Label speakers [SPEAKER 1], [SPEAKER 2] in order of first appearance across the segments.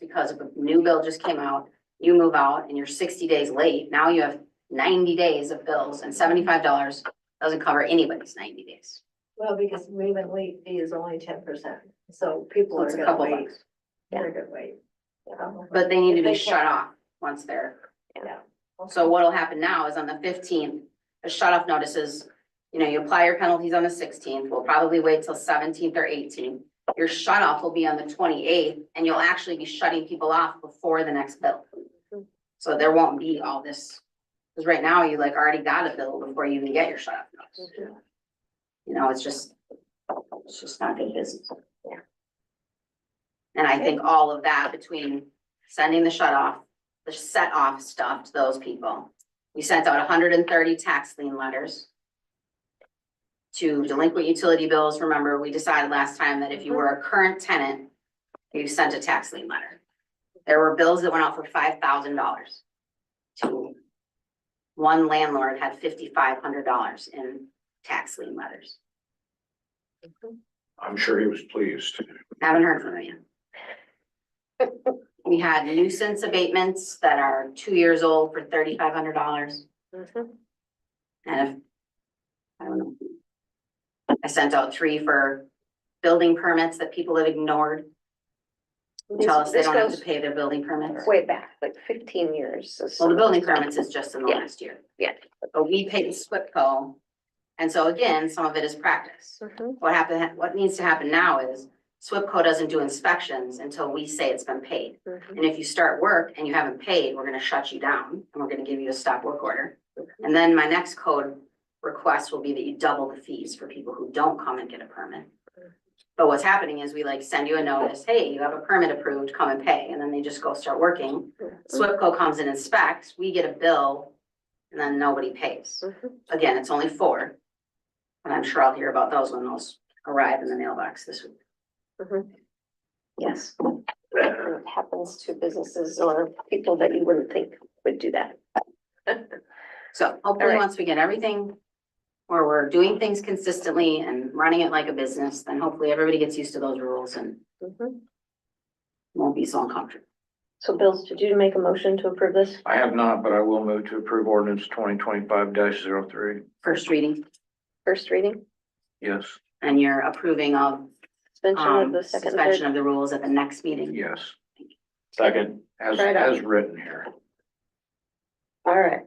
[SPEAKER 1] because a new bill just came out, you move out and you're sixty days late, now you have ninety days of bills and seventy-five dollars doesn't cover anybody's ninety days.
[SPEAKER 2] Well, because movement late fee is only ten percent, so people
[SPEAKER 1] So
[SPEAKER 2] are
[SPEAKER 1] it's a
[SPEAKER 2] gonna
[SPEAKER 1] couple
[SPEAKER 2] wait.
[SPEAKER 1] bucks,
[SPEAKER 2] They're gonna wait. Yeah.
[SPEAKER 1] but they need to
[SPEAKER 2] If they
[SPEAKER 1] be shut
[SPEAKER 2] can.
[SPEAKER 1] off once they're
[SPEAKER 2] Yeah.
[SPEAKER 1] So what'll happen now is on the fifteenth, the shut off notices, you know, you apply your penalties on the sixteenth, we'll probably wait till seventeenth or eighteenth. Your shut off will be on the twenty eighth and you'll actually be shutting people off before the next bill. So there won't be all this, cause right now you like already got a bill before you even get your shut off notice. You know, it's just, it's just not good business.
[SPEAKER 2] Yeah.
[SPEAKER 1] And I think all of that between sending the shut off, the set off stuff to those people. We sent out hundred and thirty tax lien letters. To delinquent utility bills, remember, we decided last time that if you were a current tenant, you sent a tax lien letter. There were bills that went out for five thousand dollars. To. One landlord had fifty-five hundred dollars in tax lien letters.
[SPEAKER 3] I'm sure he was pleased.
[SPEAKER 1] Haven't heard from him yet. We had nuisance abatements that are two years old for thirty-five hundred dollars
[SPEAKER 4] Mm-hmm.
[SPEAKER 2] Mhm.
[SPEAKER 1] and if. I don't know. I sent out three for building permits that people have ignored, who tell us they
[SPEAKER 4] This-
[SPEAKER 1] don't have to
[SPEAKER 4] this
[SPEAKER 1] pay their building
[SPEAKER 4] goes
[SPEAKER 1] permits.
[SPEAKER 4] Way back, like fifteen years. is-
[SPEAKER 1] Well, the building permits is just in the
[SPEAKER 4] Yeah.
[SPEAKER 1] last year.
[SPEAKER 4] Yeah.
[SPEAKER 1] But we paid SWIPCO. And so again, some of it is practice.
[SPEAKER 4] Mhm.
[SPEAKER 1] What happened, what needs to happen now is SWIPCO doesn't do inspections until we say it's been paid.
[SPEAKER 4] Mhm.
[SPEAKER 2] Mm-hmm.
[SPEAKER 1] And if you start work and you haven't paid, we're gonna shut you down and we're gonna give you a stop work order. And then my next code request will be that you double the fees for people who don't come and get a permit. But what's happening is we like send you a notice, hey, you have a permit approved, come and pay, and then they just go start working. SWIPCO comes and inspects, we get a bill, and then nobody pays.
[SPEAKER 4] Mhm.
[SPEAKER 1] Again, it's only four. And I'm sure I'll hear about those when those arrive in the mailbox this week.
[SPEAKER 4] Mhm.
[SPEAKER 1] Yes.
[SPEAKER 4] And It happens to businesses or people that you wouldn't think would do that.
[SPEAKER 1] So hopefully,
[SPEAKER 4] Alright.
[SPEAKER 1] once we get everything, or we're doing things consistently and running it like a business, then hopefully everybody gets used to those rules and
[SPEAKER 2] Mm-hmm.
[SPEAKER 4] Mhm.
[SPEAKER 1] won't be so uncomfortable.
[SPEAKER 4] So Bills, did you make a motion to approve this?
[SPEAKER 3] I have not, but I will move to approve ordinance twenty twenty-five 3
[SPEAKER 1] First reading,
[SPEAKER 4] First reading,
[SPEAKER 3] Yes,
[SPEAKER 1] and you're approving of,
[SPEAKER 4] suspension of
[SPEAKER 1] um,
[SPEAKER 4] the second, and
[SPEAKER 1] suspension
[SPEAKER 4] third.
[SPEAKER 1] of the rules at the next meeting.
[SPEAKER 3] yes. Second. As,
[SPEAKER 4] Right on.
[SPEAKER 3] as written here.
[SPEAKER 4] All right.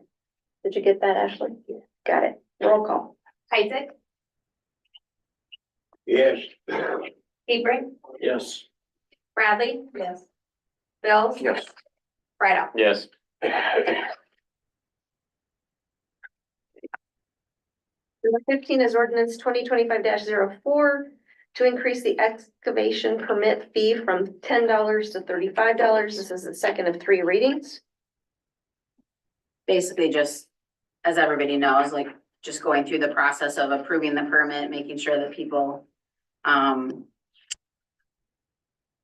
[SPEAKER 4] Did you get that, Ashley? Got it.
[SPEAKER 1] Roll call.
[SPEAKER 2] Isaac,
[SPEAKER 3] Yes.
[SPEAKER 2] Hebring,
[SPEAKER 3] Yes.
[SPEAKER 2] Bradley. Yes. Bill.
[SPEAKER 3] Yes.
[SPEAKER 2] Right off.
[SPEAKER 3] Yes.
[SPEAKER 4] Number fifteen is ordinance twenty twenty-five 4 to increase the excavation permit fee from ten dollars to thirty-five dollars. This is the second of three readings.
[SPEAKER 1] Basically, just, as everybody knows, like, just going through the process of approving the permit, making sure that people, um,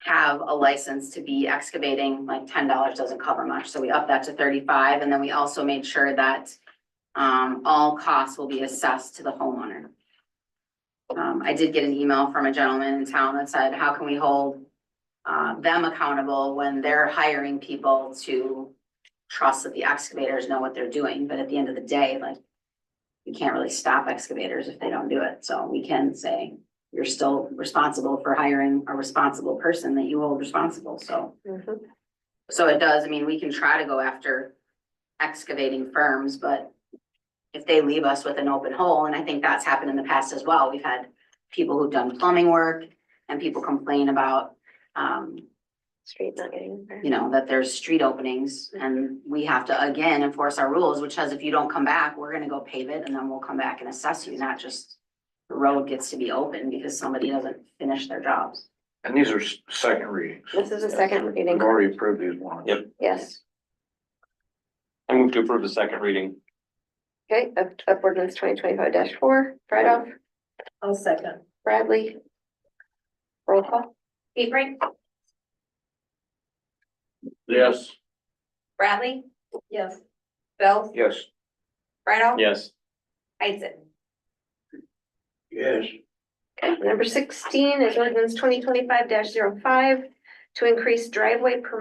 [SPEAKER 1] have a license to be excavating, like ten dollars doesn't cover much, so we upped that to thirty-five, and then we also made sure that um, all costs will be assessed to the homeowner. Um, I did get an email from a gentleman in town that said, how can we hold uh, them accountable when they're hiring people to trust that the excavators know what they're doing, but at the end of the day, like, you can't really stop excavators if they don't do it, so we can say, you're still responsible for hiring a responsible person that you hold responsible, so.
[SPEAKER 2] Mm-hmm.
[SPEAKER 1] So it does, I mean, we can try to go after excavating firms, but if they leave us with an open hole, and I think that's happened in the past as well, we've had people who've done plumbing work and people complain about, um,
[SPEAKER 4] Street not getting. there.
[SPEAKER 1] you know, that there's street openings and we have to again enforce our rules, which says if you don't come back, we're gonna go pave it and then we'll come back and assess you, not just the road gets to be open because somebody doesn't finish their jobs.
[SPEAKER 3] And these are s- second readings.
[SPEAKER 4] This is a second reading,
[SPEAKER 3] We've already approved these ones.
[SPEAKER 5] Yep.
[SPEAKER 4] yes.
[SPEAKER 5] I move to approve the second reading.
[SPEAKER 4] Okay, of, of ordinance twenty twenty-five four, right off,
[SPEAKER 2] I'll second.
[SPEAKER 4] Bradley. Roll call,
[SPEAKER 2] Hebring,
[SPEAKER 3] Yes.
[SPEAKER 2] Bradley. Yes. Bill.
[SPEAKER 3] Yes.
[SPEAKER 2] Right off.
[SPEAKER 5] Yes.
[SPEAKER 2] Isaac.
[SPEAKER 3] Yes.
[SPEAKER 4] okay, number sixteen is ordinance twenty twenty-five 5 to increase driveway permit